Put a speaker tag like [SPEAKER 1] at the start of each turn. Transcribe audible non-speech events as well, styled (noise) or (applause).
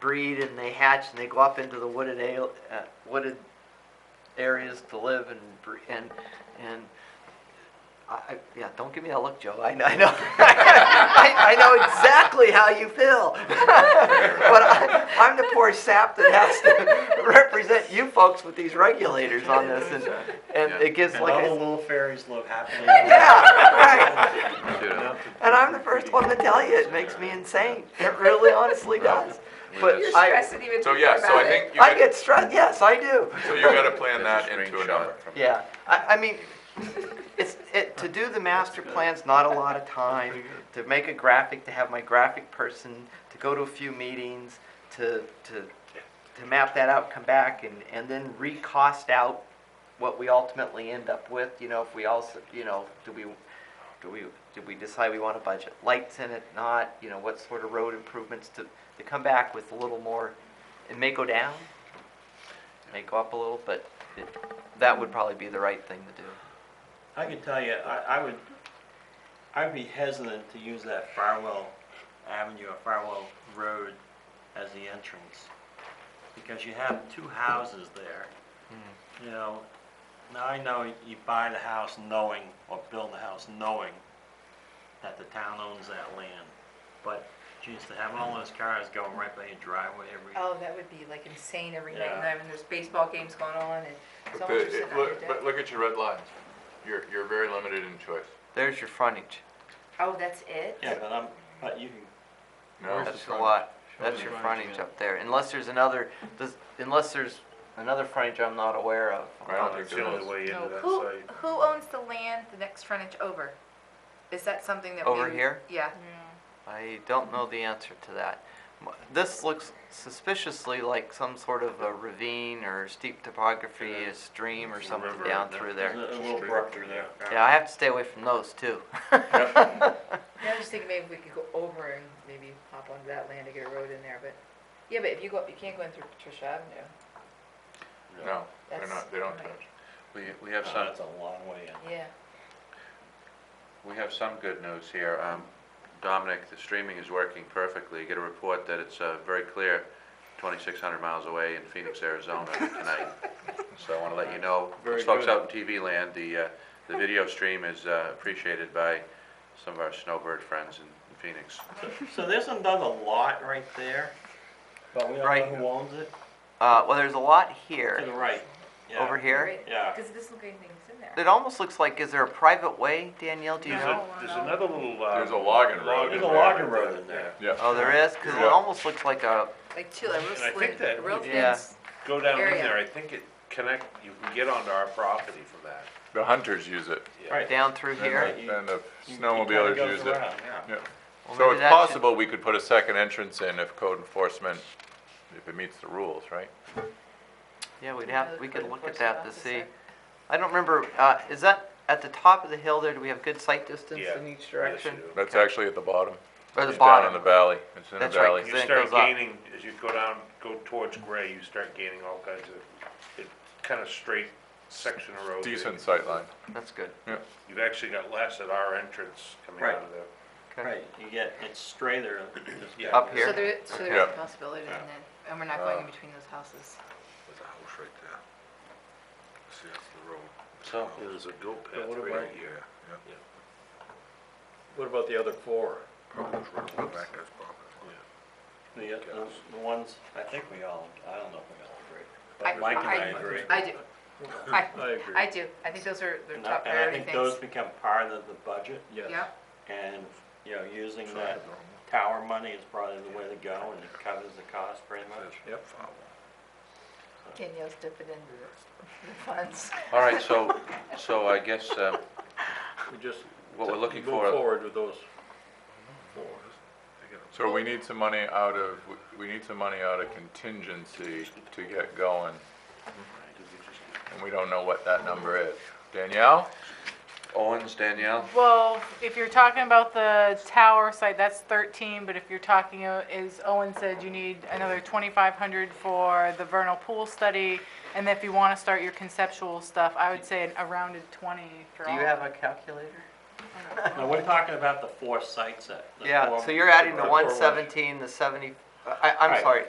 [SPEAKER 1] breed and they hatch and they go up into the wooded ale, uh, wooded areas to live and bre- and and I, I- yeah, don't give me that look, Joe. I, I know, (laughs) I, I know exactly how you feel. (laughs) but I, I'm the poor sap that has to (laughs) represent you folks with these regulators on this, and and
[SPEAKER 2] Yeah.
[SPEAKER 1] it gives
[SPEAKER 3] And
[SPEAKER 1] like
[SPEAKER 3] all the
[SPEAKER 1] a,
[SPEAKER 3] little fairies live happily.
[SPEAKER 1] yeah, right.
[SPEAKER 2] You know,
[SPEAKER 1] And I'm the first one to tell you, it makes me insane. It really honestly does. But
[SPEAKER 4] You're
[SPEAKER 1] I,
[SPEAKER 4] stressing even
[SPEAKER 5] So,
[SPEAKER 4] thinking
[SPEAKER 5] yeah, so
[SPEAKER 4] about
[SPEAKER 5] I
[SPEAKER 4] it.
[SPEAKER 5] think you
[SPEAKER 1] I
[SPEAKER 5] got,
[SPEAKER 1] get stressed, yes, I do.
[SPEAKER 5] so you gotta plan that into a number.
[SPEAKER 1] Yeah, I, I mean, it's, it, to do the master plan's not a lot of time, to make a graphic, to have my graphic person, to go to a few meetings, to, to, to map that out, come back and, and then recost out what we ultimately end up with, you know, if we also, you know, do we, do we, did we decide we want a budget lights in it, not, you know, what sort of road improvements to, to come back with a little more, it may go down, it may go up a little, but it, that would probably be the right thing to do.
[SPEAKER 3] I can tell you, I, I would, I'd be hesitant to use that Farwell Avenue or Farwell Road as the entrance. Because you have two houses there. You know, now I know you buy the house knowing, or build the house knowing that the town owns that land. But, geez, to have all those cars going right by your driveway every,
[SPEAKER 4] Oh, that would be like insane every night,
[SPEAKER 3] Yeah.
[SPEAKER 4] and I mean, there's baseball games going on and so
[SPEAKER 5] But
[SPEAKER 4] much
[SPEAKER 5] the-
[SPEAKER 4] stuff.
[SPEAKER 5] it-
[SPEAKER 4] I could
[SPEAKER 5] look-
[SPEAKER 4] do.
[SPEAKER 5] But look at your red lines. You're, you're very limited in choice.
[SPEAKER 1] There's your frontage.
[SPEAKER 4] Oh, that's it?
[SPEAKER 3] yeah, but I'm, but you can
[SPEAKER 5] No,
[SPEAKER 1] That's a lot. That's your frontage up there, unless there's another, does- unless there's another frontage I'm not aware of.
[SPEAKER 5] I don't think there is.
[SPEAKER 2] way
[SPEAKER 4] Oh,
[SPEAKER 6] No, who, who owns the land the next frontage over? Is that something that we?
[SPEAKER 1] Over here?
[SPEAKER 6] Yeah,
[SPEAKER 1] I don't know the answer to that. M- This looks suspiciously like some sort of a ravine or steep topography, a stream or something
[SPEAKER 3] river
[SPEAKER 1] down
[SPEAKER 3] and
[SPEAKER 1] through
[SPEAKER 3] there's
[SPEAKER 1] there.
[SPEAKER 3] A a little brook through there.
[SPEAKER 1] Yeah, I have to stay away from those too. (laughs)
[SPEAKER 4] Yeah, I was just thinking maybe we could go over and maybe hop onto that land to get a road in there, but, yeah, but if you go, up, you can't go in through Patricia Avenue.
[SPEAKER 5] No, they're
[SPEAKER 4] That's-
[SPEAKER 5] not, they don't
[SPEAKER 4] right.
[SPEAKER 5] touch.
[SPEAKER 2] We, we have
[SPEAKER 3] (laughs)
[SPEAKER 2] some,
[SPEAKER 3] That's a long
[SPEAKER 6] (laughs)
[SPEAKER 3] way in.
[SPEAKER 4] Yeah.
[SPEAKER 2] we have some good news here. Um, Dominic, the streaming is working perfectly. Get a report that it's, uh, very clear, twenty-six hundred miles away in Phoenix, Arizona tonight. So I wanna let you
[SPEAKER 5] (laughs)
[SPEAKER 2] know,
[SPEAKER 3] Very
[SPEAKER 2] those folks
[SPEAKER 3] good.
[SPEAKER 2] out in TV land, the, uh, the video stream is uh, appreciated by some of our snowbird friends in in Phoenix.
[SPEAKER 3] So there's another lot right there, but we
[SPEAKER 1] Right.
[SPEAKER 3] don't know who owns it,
[SPEAKER 1] Uh, well, there's a lot
[SPEAKER 3] to the
[SPEAKER 1] here,
[SPEAKER 3] right. yeah.
[SPEAKER 1] over here.
[SPEAKER 3] Yeah.
[SPEAKER 6] because it doesn't look anything's in there.
[SPEAKER 1] It almost looks like, is there a private way, Danielle, do you
[SPEAKER 6] No.
[SPEAKER 1] know?
[SPEAKER 6] There's another
[SPEAKER 7] little. uh,
[SPEAKER 5] There's a logging road.
[SPEAKER 3] There's
[SPEAKER 5] in
[SPEAKER 3] a
[SPEAKER 5] there.
[SPEAKER 3] logging road in there.
[SPEAKER 1] Oh, there is? Cause it
[SPEAKER 5] Yeah.
[SPEAKER 1] almost looks like a,
[SPEAKER 6] Like two, like real
[SPEAKER 7] And I
[SPEAKER 6] slim-
[SPEAKER 7] think that
[SPEAKER 6] real
[SPEAKER 7] we-
[SPEAKER 6] thin
[SPEAKER 1] Yeah.
[SPEAKER 6] s-
[SPEAKER 7] Go down in
[SPEAKER 6] area.
[SPEAKER 7] there, I think it connect, you can get onto our property from that.
[SPEAKER 5] The hunters use it.
[SPEAKER 3] Right.
[SPEAKER 1] down through
[SPEAKER 5] And
[SPEAKER 1] here.
[SPEAKER 3] Right.
[SPEAKER 5] the- and the
[SPEAKER 3] You- it kinda
[SPEAKER 5] snowmobilers
[SPEAKER 3] goes
[SPEAKER 5] use it.
[SPEAKER 3] around, yeah.
[SPEAKER 5] Yeah.
[SPEAKER 1] Well,
[SPEAKER 5] So
[SPEAKER 1] maybe
[SPEAKER 5] it's
[SPEAKER 1] that should-
[SPEAKER 5] possible we could put a second entrance in if code enforcement, if it meets the rules, right?
[SPEAKER 1] Yeah, we'd
[SPEAKER 4] Another
[SPEAKER 1] have, we could
[SPEAKER 4] code
[SPEAKER 1] look
[SPEAKER 4] enforcement
[SPEAKER 1] at that to
[SPEAKER 4] officer.
[SPEAKER 1] see. I don't remember, uh, is that at the top of the hill there, do we have good sight distance
[SPEAKER 7] Yeah.
[SPEAKER 1] in each
[SPEAKER 7] Yes, you
[SPEAKER 1] direction?
[SPEAKER 7] do.
[SPEAKER 5] That's actually at the bottom.
[SPEAKER 1] Or the
[SPEAKER 5] It's down in the
[SPEAKER 1] bottom?
[SPEAKER 5] valley. It's in the
[SPEAKER 1] That's right,
[SPEAKER 5] valley.
[SPEAKER 1] Then
[SPEAKER 7] You
[SPEAKER 1] it
[SPEAKER 7] start
[SPEAKER 1] goes up.
[SPEAKER 7] gaining, as you go down, go towards Gray, you start gaining all kinds of, it kind of straight section of road. there.
[SPEAKER 5] Decent sight line.
[SPEAKER 1] That's good.
[SPEAKER 7] You've actually got less at our entrance coming
[SPEAKER 3] Right.
[SPEAKER 7] out of there.
[SPEAKER 1] Okay.
[SPEAKER 3] Right, you get, it's straighter. just-
[SPEAKER 7] Yeah.
[SPEAKER 1] Up
[SPEAKER 6] So
[SPEAKER 1] Here?
[SPEAKER 6] there, so there
[SPEAKER 5] Yeah.
[SPEAKER 6] is a possibility then, that- and we're not
[SPEAKER 3] Uh,
[SPEAKER 6] going in between those houses.
[SPEAKER 7] There's a house right there. See, that's the road.
[SPEAKER 3] So,
[SPEAKER 7] There's a goat
[SPEAKER 3] Yeah, what about-
[SPEAKER 7] here.
[SPEAKER 3] what about the other four?
[SPEAKER 7] Probably goes right back, that's
[SPEAKER 3] The, uh, the the ones, I think we all, I don't know if we all agree.
[SPEAKER 6] I-
[SPEAKER 3] But Mike and I agree.
[SPEAKER 6] I do. I,
[SPEAKER 3] (laughs) I agree.
[SPEAKER 6] I do. I think those are, they're
[SPEAKER 3] And I-
[SPEAKER 6] top
[SPEAKER 3] and I
[SPEAKER 6] priority
[SPEAKER 3] think those
[SPEAKER 6] things.
[SPEAKER 3] become part of the budget,
[SPEAKER 6] Yeah,
[SPEAKER 3] and, you know, using that tower money is probably the way to go, and it covers the cost pretty much.
[SPEAKER 7] Yep.
[SPEAKER 6] Danielle's dipping into the- the funds.
[SPEAKER 2] All right, so, so I guess, uh,
[SPEAKER 3] We just
[SPEAKER 2] what we're looking for.
[SPEAKER 3] with those.
[SPEAKER 5] So we need some money out of, we need some money out of contingency to get going. And we don't know what that number is. Danielle?
[SPEAKER 2] Owens, Danielle?
[SPEAKER 8] Well, if you're talking about the tower site, that's 13, but if you're talking, uh, as Owen said, you need another 2,500 for the vernal pool study, and if you want to start your conceptual stuff, I would say a rounded 20 for
[SPEAKER 1] Do
[SPEAKER 8] all.
[SPEAKER 1] you have a calculator?
[SPEAKER 3] No, we're talking about the four sites that. the
[SPEAKER 1] Yeah,
[SPEAKER 3] four-
[SPEAKER 1] so you're adding the
[SPEAKER 3] four
[SPEAKER 1] one
[SPEAKER 3] ones.
[SPEAKER 1] seventeen, the seventy, I, I'm
[SPEAKER 3] Right.
[SPEAKER 1] sorry,